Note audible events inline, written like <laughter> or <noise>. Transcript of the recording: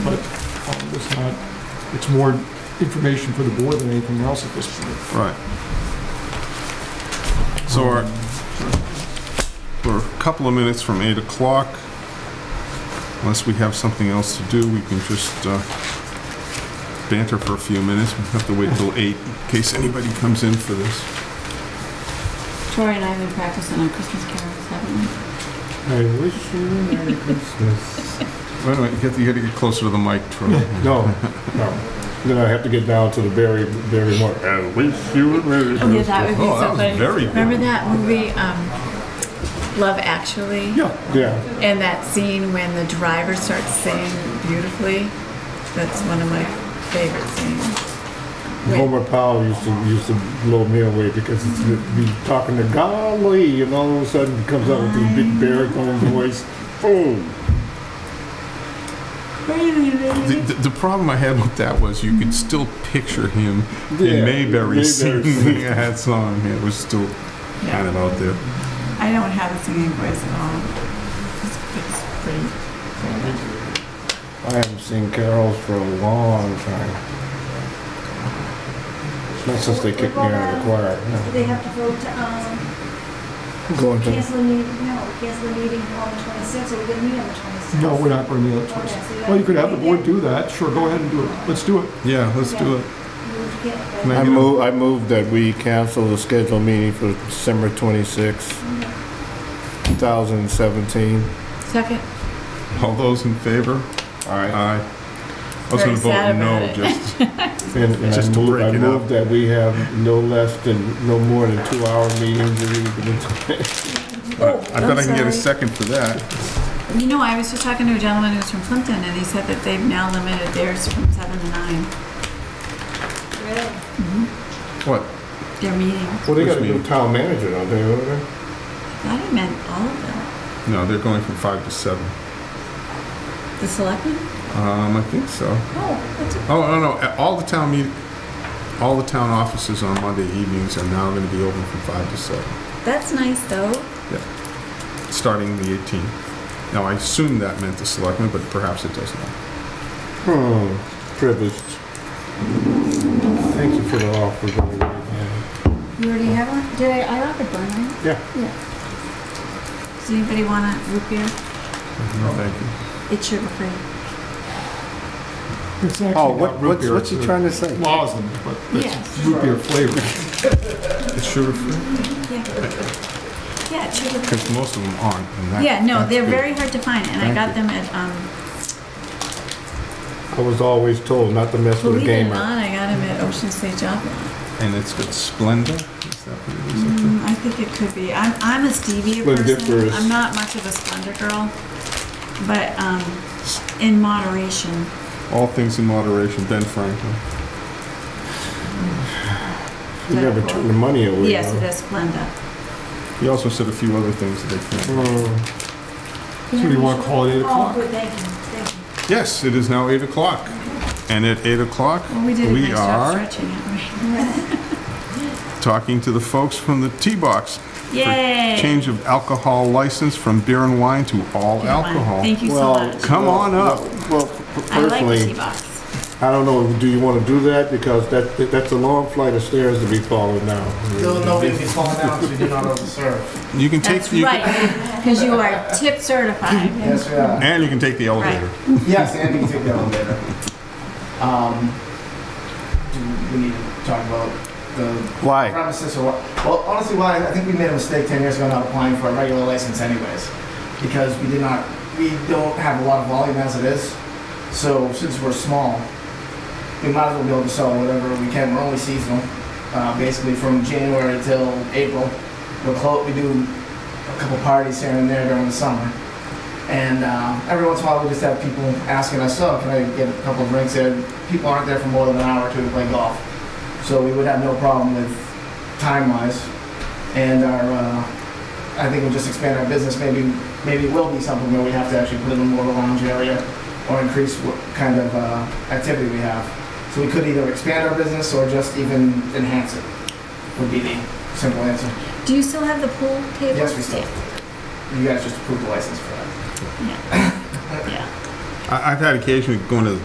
Um, was not, it's more information for the board than anything else at this point. Right. So our, we're a couple of minutes from 8 o'clock. Unless we have something else to do, we can just uh, banter for a few minutes. We have to wait till 8 in case anybody comes in for this. Tori and I have been practicing on Christmas carols, haven't we? I wish you a Merry Christmas. Wait a minute, you got to, you got to get closer to the mic, Troy. <laughs> No, no. Then I have to get down to the Barry, Barry Moore. I wish you a Merry Oh, yeah, that would be Oh, that so was funny. very good. Remember that movie, um, Love Actually? Yeah, yeah. And that scene when the driver starts singing beautifully? That's one of my favorite scenes. Homer Powell used to, used to blow me away because it's, be talking to golly, and all of a sudden he comes out with this big baritone voice. Oh, The, the, the problem I had with that was you could still picture him Yeah, in Mayberry Mayberry <laughs> singing <laughs> singing. that song. It was still kind of out there. I don't have a singing voice at all. I It's, it's pretty. haven't seen carols for a long time. Not since they kicked me out of the choir. Do no. they have to vote to, um, Going to cancel the meeting, no, cancel the meeting on the twenty-sixth, or we're gonna meet on the twenty-sixth? Oh, No, we're not going to be on the choice. Well, you could have the board do that, sure, go ahead and do it, let's do it. Yeah, let's do it. Can I get a- move, I move that we cancel the scheduled meeting for December 26, 2017. Second, All those in favor? Aye. I was Very going to vote sad about no, it. <laughs> just, And and I Just to move, break I it move up. that we have no less than, no more than two-hour meetings. a week. Oh, I bet I can get a second for that. You know, I was just talking to a gentleman who's from Clinton, and he said that they've now limited theirs from seven to nine, What? their meetings. Well, they got a Which new means- town manager, don't they, over there? That meant all of them. No, they're going from five to seven. The selectmen? Um, I think so. Oh, that's a... Oh, no, no, all the town meet, all the town offices on Monday evenings are now going to be open from five to seven. That's nice, though. starting the 18th. Now, I assume that meant the selectmen, but perhaps it does not. Hmm, privileged. Thank you for the offer. Johnny. You already have one? Did I, I offered one, right? Yeah. Yeah. Does anybody want a root beer? No, thank you. It's sugar free. It's actually Oh, not what, root what's, beer, what's he it's trying to say? Laws in it, but it's Yeah. root beer flavor. It's sugar-free, Yeah. Yeah, it's sugar free. because most of them aren't. and that- Yeah, no, that's they're good. very hard to find, and I Thank you. got them at, um, I was always told not to mess with a believe it or gamer. not, I got them at Ocean State Job Lot. And it's got Splenda? Is that what it is? Mm, I think it could be. I'm, I'm a stevia Like person. dippers. I'm not much of a Splenda girl, but, um, in moderation. All things in moderation, Ben Franklin. You never turn the money away. Yes, huh? it is Splenda. He also said a few other things that I can't. Hmm, So you want to call it 8 Oh, o'clock? good, thank you, thank you. Yes, it is now 8 o'clock. And at 8 o'clock, Well, we did a nice we job are stretching it, <laughs> right? talking to the folks from the Tea Box. for Yay! Change of alcohol license from beer and wine to all alcohol. Thank you so Well, much. Come on up. Uh, well, p- I like the personally, tea box. I don't know, do you want to do that? Because that, that- that's a long flight of stairs to be followed now. No, no, if you fall down, we do not overserve. You can take, That's you can- right, because you are tip <laughs> certified. Yes, we are. and you can take the elevator. Yes, Andy can take the elevator. Um, do we need to talk about the Why? premises or what? Well, honestly, why, I think we made a mistake ten years ago not applying for a regular license anyways. Because we did not, we don't have a lot of volume as it is. So since we're small, we might as well be able to sell whatever we can. We're only seasonal, uh, basically from January till April. We're close, we do a couple parties here and there during the summer. And uh, every once in a while, we just have people asking us, "Oh, can I get a couple of drinks?" There, people aren't there for more than an hour or two to play golf, so we would have no problem with time-wise. And our, uh, I think we'll just expand our business. Maybe, maybe it will be something where we have to actually put in a more lounge area or increase what kind of uh, activity we have. So we could either expand our business or just even enhance it. Would be the simple answer. Do you still have the pool table? Yes, we still. You guys just approved the license for that. Yeah. Yeah. I, I've had occasion of going to